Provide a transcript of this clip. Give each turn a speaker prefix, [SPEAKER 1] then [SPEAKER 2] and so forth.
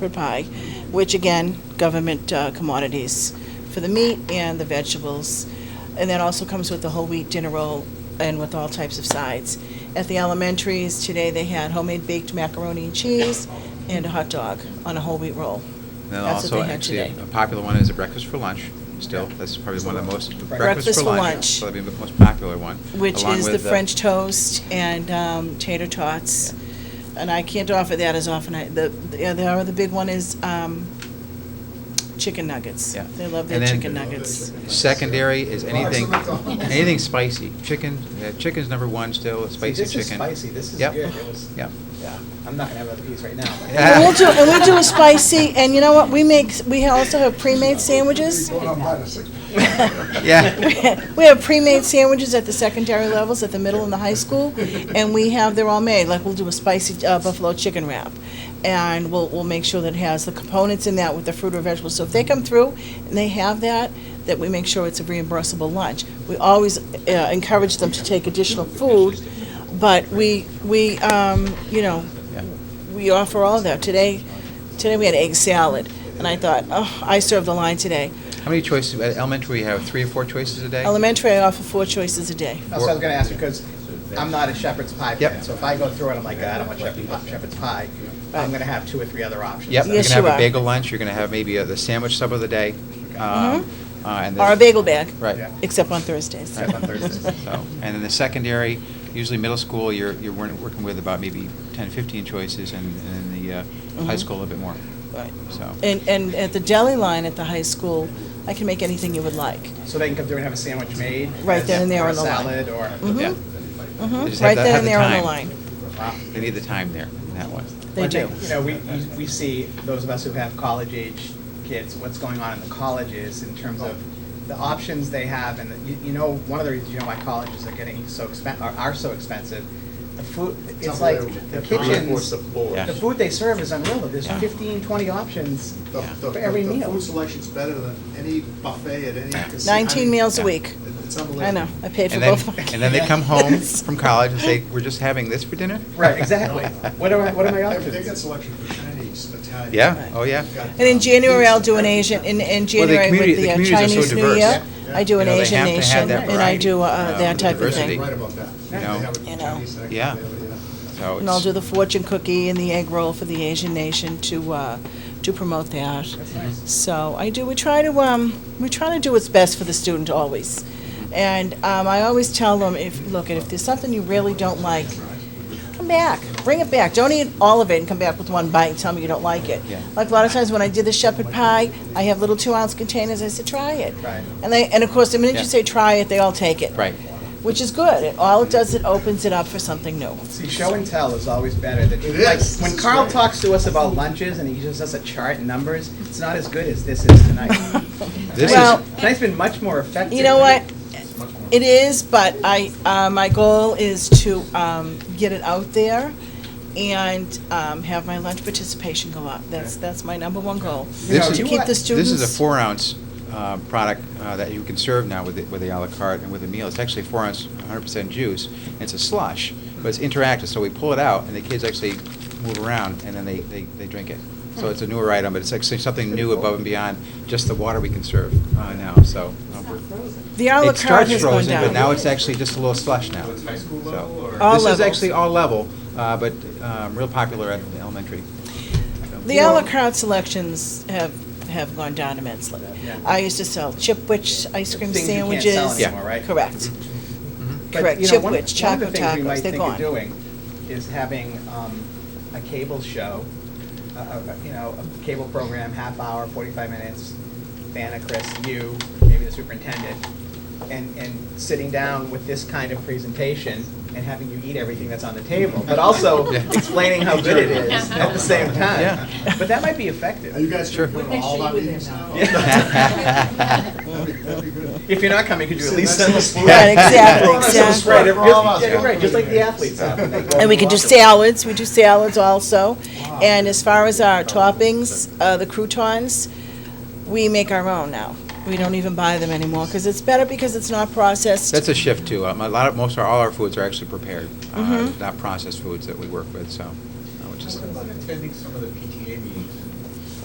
[SPEAKER 1] for pie, which again, government uh, commodities for the meat and the vegetables. And that also comes with the whole wheat dinner roll and with all types of sides. At the elementaries today, they had homemade baked macaroni and cheese and a hot dog on a whole wheat roll.
[SPEAKER 2] And then
[SPEAKER 1] That's what
[SPEAKER 2] also,
[SPEAKER 1] they had
[SPEAKER 2] actually,
[SPEAKER 1] today.
[SPEAKER 2] a popular one is a breakfast for lunch, still. That's probably one of the most, breakfast for
[SPEAKER 1] lunch.
[SPEAKER 2] lunch. Probably the most popular one.
[SPEAKER 1] Which
[SPEAKER 2] along
[SPEAKER 1] is the
[SPEAKER 2] with
[SPEAKER 1] French toast and um, tater tots. And I can't offer that as often. I- The, the other, the big one is um, chicken nuggets.
[SPEAKER 2] Yeah.
[SPEAKER 1] They love
[SPEAKER 2] And
[SPEAKER 1] their
[SPEAKER 2] then-
[SPEAKER 1] chicken nuggets.
[SPEAKER 2] Secondary is anything,
[SPEAKER 3] McDonald's.
[SPEAKER 2] anything spicy. Chicken, uh, chicken's number one still,
[SPEAKER 3] See,
[SPEAKER 2] spicy
[SPEAKER 3] This is
[SPEAKER 2] chicken.
[SPEAKER 3] spicy, this is
[SPEAKER 2] Yep.
[SPEAKER 3] good. It was, yeah,
[SPEAKER 2] Yep.
[SPEAKER 3] I'm not gonna have another piece right now. but-
[SPEAKER 2] Yeah.
[SPEAKER 1] And we'll do, and we'll do a spicy, and you know what, we make, we also have pre-made sandwiches.
[SPEAKER 2] Yeah.
[SPEAKER 1] We have pre-made sandwiches at the secondary levels, at the middle and the high school, and we have, they're all made, like, we'll do a spicy uh, buffalo chicken wrap. And we'll, we'll make sure that it has the components in that with the fruit or vegetables, so if they come through and they have that, that we make sure it's a reimbursable lunch. We always uh, encourage them to take additional food, but we, we, um, you know,
[SPEAKER 2] Yeah.
[SPEAKER 1] we offer all that. Today, today we had egg salad, and I thought, oh, I served the line today.
[SPEAKER 2] How many choices, at elementary, you have three or four choices a day?
[SPEAKER 1] Elementary, I offer four choices a day.
[SPEAKER 3] That's what I was gonna ask, because I'm not a shepherd's pie fan,
[SPEAKER 2] Yep.
[SPEAKER 3] so if I go through it, I'm like, "God, I don't want shepherd's pie, shepherd's pie. I'm gonna have two or three other options.
[SPEAKER 2] Yep,
[SPEAKER 3] So-
[SPEAKER 2] you're going
[SPEAKER 1] Yes,
[SPEAKER 2] to
[SPEAKER 1] you
[SPEAKER 2] have
[SPEAKER 1] are. Mm-hmm.
[SPEAKER 2] a bagel lunch, you're going to have maybe uh, the sandwich sub of the day. um, uh, and
[SPEAKER 1] Or a
[SPEAKER 2] there's-
[SPEAKER 1] bagel bag,
[SPEAKER 2] Right.
[SPEAKER 3] Yeah.
[SPEAKER 1] except on Thursdays.
[SPEAKER 2] Right, on Thursdays. So, And then the secondary, usually middle school, you're, you're wor- working with about maybe 10, 15 choices, and and then the uh, high
[SPEAKER 1] Mhm.
[SPEAKER 2] school a little bit more,
[SPEAKER 1] Right.
[SPEAKER 2] so.
[SPEAKER 1] And, and at the deli line at the high school, I can make anything you would like.
[SPEAKER 3] So they can come through and have a sandwich made.
[SPEAKER 1] Right there and there
[SPEAKER 3] or a
[SPEAKER 1] on the line.
[SPEAKER 3] Salad or,
[SPEAKER 1] Mhm.
[SPEAKER 2] Yeah,
[SPEAKER 1] Mhm.
[SPEAKER 2] They just have
[SPEAKER 1] Right
[SPEAKER 2] to
[SPEAKER 1] there
[SPEAKER 2] have
[SPEAKER 1] and
[SPEAKER 2] the
[SPEAKER 1] there on the
[SPEAKER 2] time.
[SPEAKER 1] line.
[SPEAKER 3] wow.
[SPEAKER 2] they need the time there, in that one.
[SPEAKER 1] They
[SPEAKER 3] One
[SPEAKER 1] do.
[SPEAKER 3] thing, You know, we, we- we see, those of us who have college-age kids, what's going on in the colleges in terms of the options they have, and you, you know, one of the reasons, you know, why colleges are getting so expen, are, are so expensive, the food, it's like, the kitchens,
[SPEAKER 2] Yeah.
[SPEAKER 3] the food they serve is unreal, there's
[SPEAKER 2] Yeah.
[SPEAKER 3] 15, 20 options
[SPEAKER 4] The- the-
[SPEAKER 3] for every
[SPEAKER 4] the
[SPEAKER 3] meal.
[SPEAKER 4] food selection's better than any buffet at any casino.
[SPEAKER 1] 19 meals a
[SPEAKER 2] Yeah.
[SPEAKER 1] week.
[SPEAKER 4] It's
[SPEAKER 1] I
[SPEAKER 4] unbelievable.
[SPEAKER 1] know, I paid for
[SPEAKER 2] And then,
[SPEAKER 1] both of my kids.
[SPEAKER 2] and then they come home from college and say, we're just having this for dinner?
[SPEAKER 3] Right, exactly. What are, my- what are my
[SPEAKER 4] They- They got
[SPEAKER 3] options?
[SPEAKER 4] selection for Chinese, Italian.
[SPEAKER 2] Yeah, oh, yeah.
[SPEAKER 4] Got,
[SPEAKER 1] And in
[SPEAKER 4] um,
[SPEAKER 1] January, I'll do an
[SPEAKER 4] everything.
[SPEAKER 1] Asian, in, in
[SPEAKER 2] Well, the
[SPEAKER 1] January
[SPEAKER 2] community-
[SPEAKER 1] with
[SPEAKER 2] the
[SPEAKER 1] the uh,
[SPEAKER 2] communities are so
[SPEAKER 1] Chinese New
[SPEAKER 2] diverse.
[SPEAKER 1] Year,
[SPEAKER 4] Yeah.
[SPEAKER 1] I do an
[SPEAKER 2] You know, they
[SPEAKER 1] Asian
[SPEAKER 2] have to have
[SPEAKER 1] nation,
[SPEAKER 2] that
[SPEAKER 1] and I
[SPEAKER 2] variety,
[SPEAKER 1] do uh,
[SPEAKER 2] uh,
[SPEAKER 1] that type of
[SPEAKER 2] diversity.
[SPEAKER 1] thing.
[SPEAKER 4] Right about that. They
[SPEAKER 2] know.
[SPEAKER 4] have a
[SPEAKER 1] You know.
[SPEAKER 4] Chinese section
[SPEAKER 2] Yeah.
[SPEAKER 4] there,
[SPEAKER 2] So
[SPEAKER 1] And I'll do
[SPEAKER 2] it's,
[SPEAKER 1] the fortune cookie and the egg roll for the Asian nation to, uh, to promote that.
[SPEAKER 2] Mm-hmm.
[SPEAKER 3] That's nice.
[SPEAKER 1] So I do, we try to, um, we try to do what's best for the student always. And, um, I always tell them if, look, if there's something you really don't like, come back, bring it back. Don't eat all of it and come back with one bite and tell me you don't like it.
[SPEAKER 2] Yeah.
[SPEAKER 1] Like a lot of times when I did the shepherd pie, I have little two ounce containers, I said, try it.
[SPEAKER 3] Right.
[SPEAKER 1] And they, and of course, the minute you
[SPEAKER 2] Yeah.
[SPEAKER 1] say try it, they all take it.
[SPEAKER 2] right,
[SPEAKER 1] Which is good. It- All it does, it opens it up for something new.
[SPEAKER 3] See, show and tell is always better than,
[SPEAKER 4] It
[SPEAKER 3] like,
[SPEAKER 4] is.
[SPEAKER 3] when
[SPEAKER 4] It's
[SPEAKER 3] Carl
[SPEAKER 4] great.
[SPEAKER 3] talks to us about lunches and he gives us a chart and numbers, it's not as good as this is tonight.
[SPEAKER 2] This
[SPEAKER 1] Well-
[SPEAKER 2] is,
[SPEAKER 1] is-
[SPEAKER 3] Tonight's been much more effective.
[SPEAKER 1] You know what?
[SPEAKER 4] It's much more-
[SPEAKER 1] It is, but I, uh, my goal is to um, get it out there and um, have my lunch participation go up. That's, that's my number one goal.
[SPEAKER 3] You
[SPEAKER 2] This
[SPEAKER 3] know,
[SPEAKER 2] is-
[SPEAKER 1] To
[SPEAKER 3] you
[SPEAKER 1] keep
[SPEAKER 3] are-
[SPEAKER 1] the
[SPEAKER 2] this is a
[SPEAKER 1] students,
[SPEAKER 2] four ounce uh, product uh, that you can serve now with the, with the à la carte and with a meal. It's actually four ounce, 100% juice, and it's a slush, but it's interactive, so we pull it out, and the kids actually move around, and then they, they, they drink it. So it's a newer item, but it's actually something new above and beyond just the water we can serve uh, now, so. uh, we're-
[SPEAKER 1] the à la carte
[SPEAKER 2] It starts
[SPEAKER 1] has gone
[SPEAKER 2] frozen,
[SPEAKER 1] down.
[SPEAKER 2] but now it's actually just a little slush now.
[SPEAKER 4] So it's high school
[SPEAKER 2] So-
[SPEAKER 4] level, or-
[SPEAKER 1] All
[SPEAKER 2] This
[SPEAKER 1] levels.
[SPEAKER 2] is actually all level, uh, but um, real popular at the elementary.
[SPEAKER 1] The à la carte selections have, have gone down immensely.
[SPEAKER 3] Yeah.
[SPEAKER 1] I used to sell Chipwich ice cream
[SPEAKER 3] Things you can't
[SPEAKER 1] sandwiches.
[SPEAKER 3] sell anymore, right?
[SPEAKER 1] Correct.
[SPEAKER 2] Mm-hmm.
[SPEAKER 3] But,
[SPEAKER 1] Correct,
[SPEAKER 3] you know, one-
[SPEAKER 1] Chipwich,
[SPEAKER 3] one of
[SPEAKER 1] Choco
[SPEAKER 3] the things we
[SPEAKER 1] Tacos,
[SPEAKER 3] might
[SPEAKER 1] they're
[SPEAKER 3] think of
[SPEAKER 1] gone.
[SPEAKER 3] Doing is having, um, a cable show, a- a- a- you know, a cable program, half hour, forty-five minutes, Vanna, Chris, you, maybe the superintendent, and, and sitting down with this kind of presentation and having you eat everything that's on the table, but also
[SPEAKER 2] Yeah.
[SPEAKER 3] explaining how good it is at the same
[SPEAKER 2] Yeah.
[SPEAKER 3] time. But that might be
[SPEAKER 4] Are
[SPEAKER 3] effective.
[SPEAKER 4] you guys
[SPEAKER 2] Sure.
[SPEAKER 4] going
[SPEAKER 5] We'll make
[SPEAKER 4] all
[SPEAKER 5] sure
[SPEAKER 4] that
[SPEAKER 5] you were
[SPEAKER 4] meetings
[SPEAKER 5] there,
[SPEAKER 4] now?
[SPEAKER 3] Mel.
[SPEAKER 4] That'd be- that'd be good.
[SPEAKER 3] If you're not coming, could you at
[SPEAKER 4] See,
[SPEAKER 3] least
[SPEAKER 4] that's
[SPEAKER 3] send
[SPEAKER 4] the
[SPEAKER 3] us?
[SPEAKER 4] sport.
[SPEAKER 1] Right, exactly,
[SPEAKER 4] Everyone has some sport.
[SPEAKER 1] exactly.
[SPEAKER 4] Everyone else.
[SPEAKER 3] Yeah, right, just like the athletes have. when they go
[SPEAKER 1] And we can do
[SPEAKER 3] walk.
[SPEAKER 1] salads, we do salads also. And as far as our toppings, uh, the croutons, we make our own now. We don't even buy them anymore, because it's better because it's not processed.
[SPEAKER 2] That's a shift too. Um, a lot of, most of, all our foods are actually prepared, Mm-hmm. uh, not processed foods that we work with, so, uh, which is,
[SPEAKER 6] What about attending some of the PTA meetings